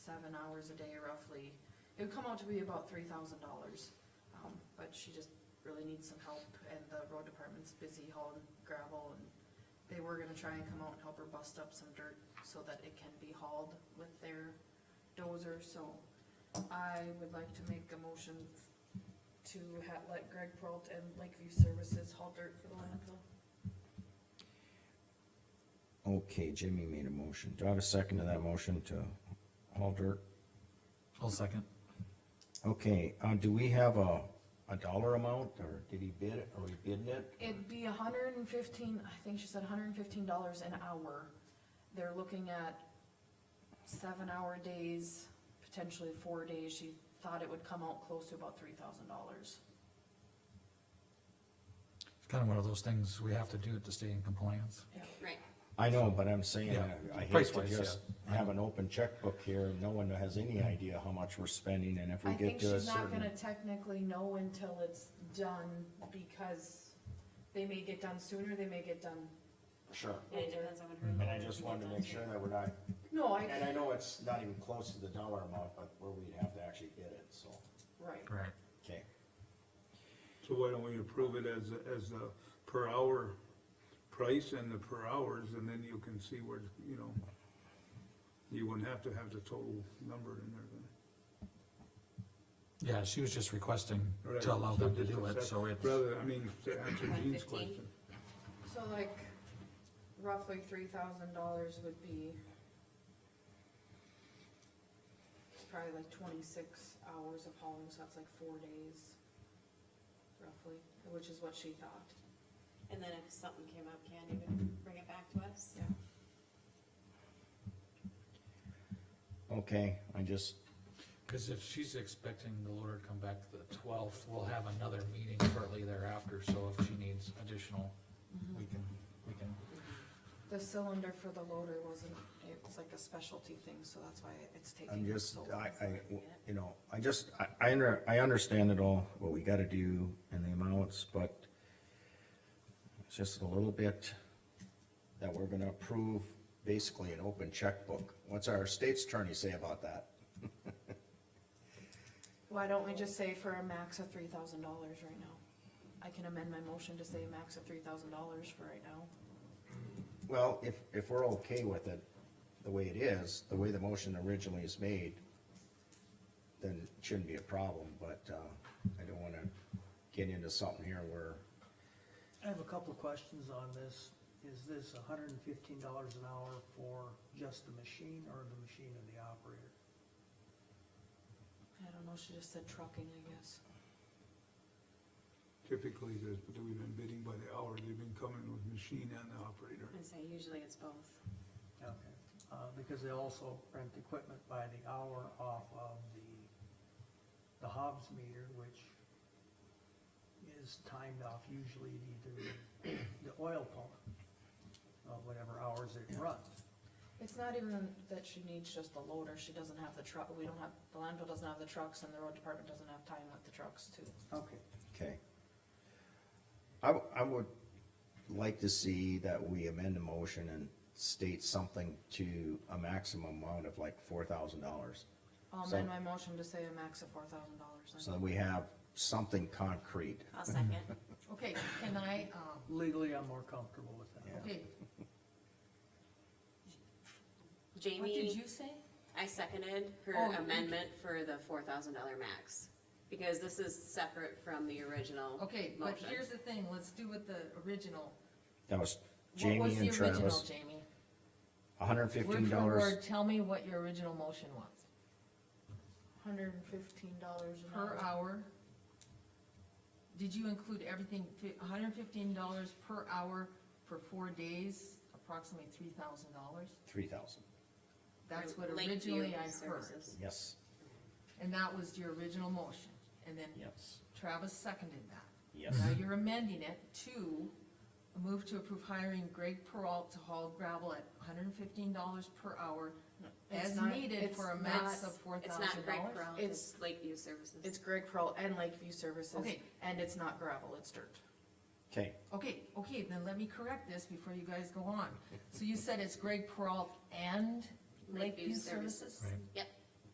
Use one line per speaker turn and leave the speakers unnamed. seven hours a day roughly. It would come out to be about three thousand dollars, um, but she just really needs some help, and the road department's busy hauling gravel, and they were gonna try and come out and help her bust up some dirt so that it can be hauled with their dozer, so I would like to make a motion to ha- let Greg Prolt and Lakeview Services haul dirt for the landfill.
Okay, Jimmy made a motion. Do I have a second to that motion to haul dirt?
I'll second.
Okay, uh, do we have a, a dollar amount, or did he bid it, or he bid it?
It'd be a hundred and fifteen, I think she said hundred and fifteen dollars an hour. They're looking at seven-hour days, potentially four days. She thought it would come out close to about three thousand dollars.
It's kind of one of those things we have to do to stay in compliance.
Right.
I know, but I'm saying,
Yeah,
I hate to
price-wise,
just
yeah.
have an open checkbook here, and no one has any idea how much we're spending, and if we
I
get
think
to a
she's not
certain.
gonna technically know until it's done, because they may get done sooner, they may get done
Sure,
Yeah, it
later.
depends on what her-
and I just wanted to make sure that we're not,
No, I,
and I know it's not even close to the dollar amount, but where we'd have to actually bid it, so,
right.
Right.
okay.
So why don't we approve it as, a- as a per hour price and the per hours, and then you can see where, you know, you wouldn't have to have the total number in there then.
Yeah, she was just requesting
Right,
to allow them to
just
do it,
accept-
so it's,
Rather, I mean, to answer Jean's
115?
question,
So like roughly three thousand dollars would be it's probably like twenty-six hours of hauling, so that's like four days roughly, which is what she thought.
And then if something came up, Candy would bring it back to us.
Yeah.
Okay, I just,
because if she's expecting the lawyer to come back the twelfth, we'll have another meeting shortly thereafter, so if she needs additional, we can, we can.
The cylinder for the loader wasn't, it's like a specialty thing, so that's why it's
I'm
taking
just,
so long.
I, I, you know, I just, I, I under, I understand it all, what we gotta do and the amounts, but it's just a little bit that we're gonna approve basically an open checkbook. What's our state's attorney say about that?
Why don't we just say for a max of three thousand dollars right now? I can amend my motion to say a max of three thousand dollars for right now.
Well, if, if we're okay with it, the way it is, the way the motion originally is made, then it shouldn't be a problem, but, uh, I don't wanna get into something here where,
I have a couple of questions on this. Is this hundred and fifteen dollars an hour for just the machine or the machine and the operator?
I don't know, she just said trucking, I guess.
typically, there's, we've been bidding by the hour, they've been coming with machine and the operator.
And say usually it's both.
Okay. Uh, because they also rent equipment by the hour off of the, the Hobbs meter, which is timed off usually at either the oil pump, uh, whatever hours it runs.
It's not even that she needs just the loader, she doesn't have the truck, we don't have, the landfill doesn't have the trucks and the road department doesn't have time with the trucks too.
Okay.
Okay. I, w- I would like to see that we amend the motion and state something to a maximum amount of like four thousand dollars.
I'll
So-
amend my motion to say a max of four thousand
So
dollars.
that we have something concrete.
I'll second.
Okay, can I, um,
Legally, I'm more comfortable with that.
Yeah.
okay, what did
Jamie,
you say?
I seconded her
Oh, you-
amendment for the four thousand dollar max, because this is separate from the original.
Okay, but
Motion.
here's the thing, let's do with the original.
That was
What was
Jamie
the
and
original,
Travis,
Jamie?
hundred and
Word
fifteen
for
dollars
word, tell me what your original motion was.
Hundred and fifteen dollars an
Per
hour.
hour? Did you include everything, hundred and fifteen dollars per hour for four days, approximately three thousand dollars?
three thousand,
That's what
Lakeview
originally I heard.
Services.
yes,
And that was your original motion, and then
yes,
Travis seconded that.
yes.
Now you're amending it to a move to approve hiring Greg Peralt to haul gravel at hundred and fifteen dollars per hour
It's
as
not-
needed
it's
for a max
not-
of four
It's
thousand
not Greg
dollars.
Peralta, it's Lakeview Services.
It's Greg Pearl and Lakeview Services.
Okay.
And it's not gravel, it's dirt.
Okay,
Okay, okay, then let me correct this before you guys go on. So you said it's Greg Peralt and Lakeview Services?
Right.
Yep,